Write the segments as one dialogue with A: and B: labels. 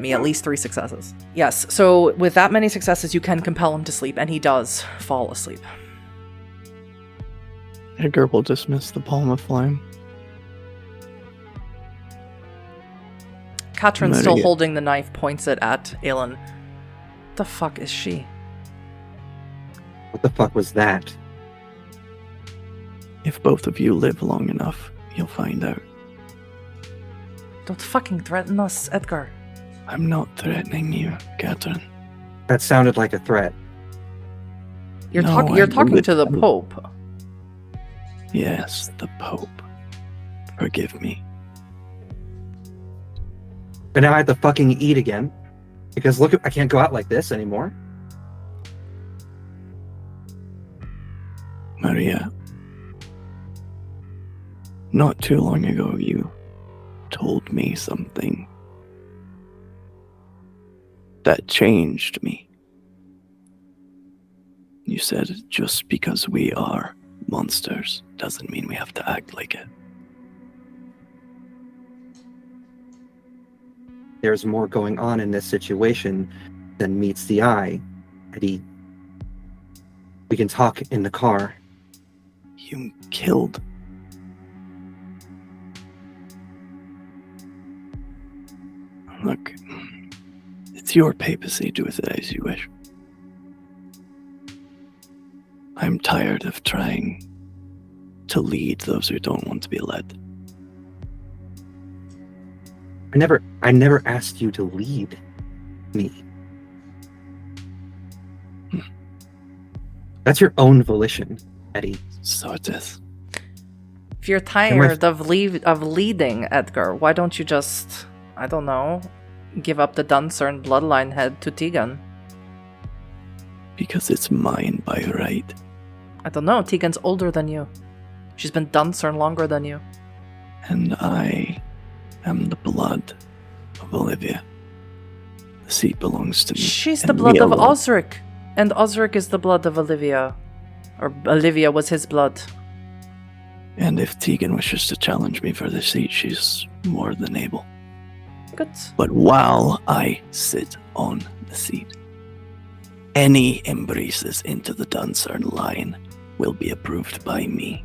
A: me at least three successes. Yes, so with that many successes, you can compel him to sleep, and he does fall asleep.
B: Edgar will dismiss the palm of flame.
A: Katrin,
B: Murder
A: still
B: you.
A: holding the knife, points it at Aelin. The fuck is she?
C: What the fuck was that?
B: If both of you live long enough, you'll find out.
A: Don't fucking threaten us, Edgar.
B: I'm not threatening you, Catherine.
C: That sounded like a threat.
A: You're,
B: No,
A: talk-
B: I
A: you're talking
B: wouldn't.
A: to the Pope.
B: Yes, the Pope. Forgive me.
C: But now I have to fucking eat again. Because look, I can't go out like this anymore.
B: Maria, not too long ago you told me something that changed me. You said just because we are monsters doesn't mean we have to act like it.
C: There's more going on in this situation than meets the eye. Eddie, we can talk in the car.
B: You killed. Look, it's your papacy. Do with it as you wish. I'm tired of trying to lead those who don't want to be led.
C: I never, I never asked you to lead me. That's your own volition, Eddie.
B: So it is.
A: If you're tired of leave of leading Edgar, why don't you just I don't know, give up the Duncern bloodline head to Tegan?
B: Because it's mine by right.
A: I don't know. Tegan's older than you. She's been Duncern longer than you.
B: and I am the blood of Olivia. The seat belongs to me.
A: She's the
B: and
A: blood
B: me
A: of
B: alone.
A: Osric, and Osric is the blood of Olivia, or Olivia was his blood.
B: And if Tegan wishes to challenge me for the seat, she's more than able.
A: Good.
B: But while I sit on the seat, any embraces into the Dunsarn line will be approved by me.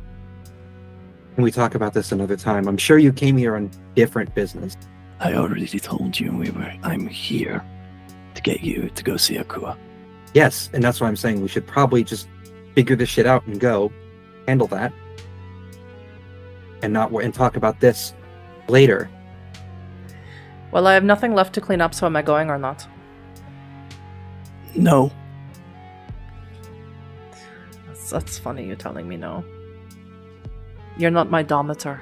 C: Can we talk about this another time? I'm sure you came here on different business.
B: I already told you we were. I'm here to get you to go see Akua.
C: Yes, and that's why I'm saying we should probably just figure this shit out and go handle that, and not wor- and talk about this later.
A: Well, I have nothing left to clean up, so am I going or not?
B: No,
A: That's, that's funny, you telling me no. You're not my domitor,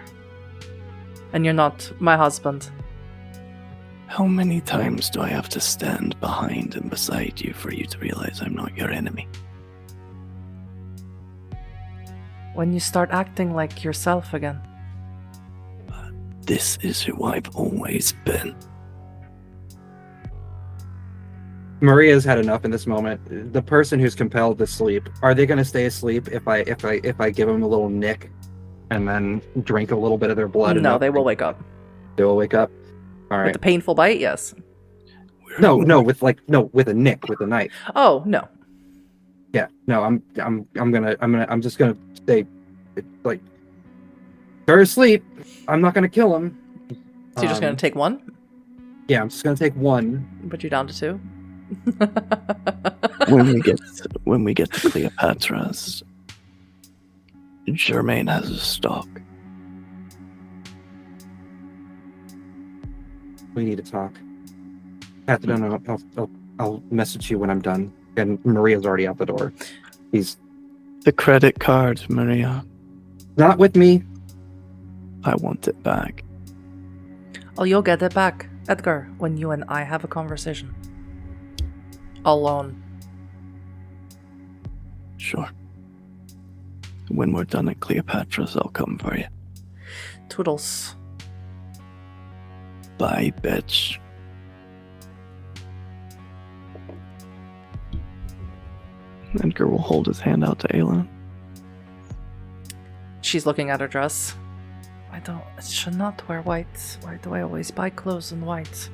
A: and you're not my husband.
B: How many times do I have to stand behind and beside you for you to realize I'm not your enemy?
A: When you start acting like yourself again,
B: This is who I've always been.
C: Maria's had enough in this moment. The person who's compelled to sleep, are they going to stay asleep if I if I if I give them a little nick, and then drink a little bit of their blood?
A: no,
C: enough,
A: they will wake up
C: They will wake up. All
A: with
C: right.
A: the painful bite. Yes.
B: We're-
C: No, no, with like no, with a nick, with a knife.
A: Oh no.
C: yeah no i'm i'm i'm gonna i'm gonna i'm just gonna stay like they're asleep i'm not gonna kill him
A: So you're just
C: Um,
A: gonna take one,
C: yeah i'm just gonna take one
A: but you're down to two.
B: When we get when we get to Cleopatra's, Germaine has a stock.
C: we need to talk Catherine, no, no, I'll, I'll i'll message you when i'm done and maria's already out the door he's
B: The credit card, Maria.
C: not with me
B: I want it back.
A: oh, you'll get it back, Edgar, when you and I have a conversation. Alone.
B: Sure. When we're done at Cleopatra's, I'll come for you.
A: Toodles.
B: Bye, bitch. Edgar will hold his hand out to Aelin.
A: She's looking at her dress. I don't. I should not wear white. Why do I always buy clothes in white?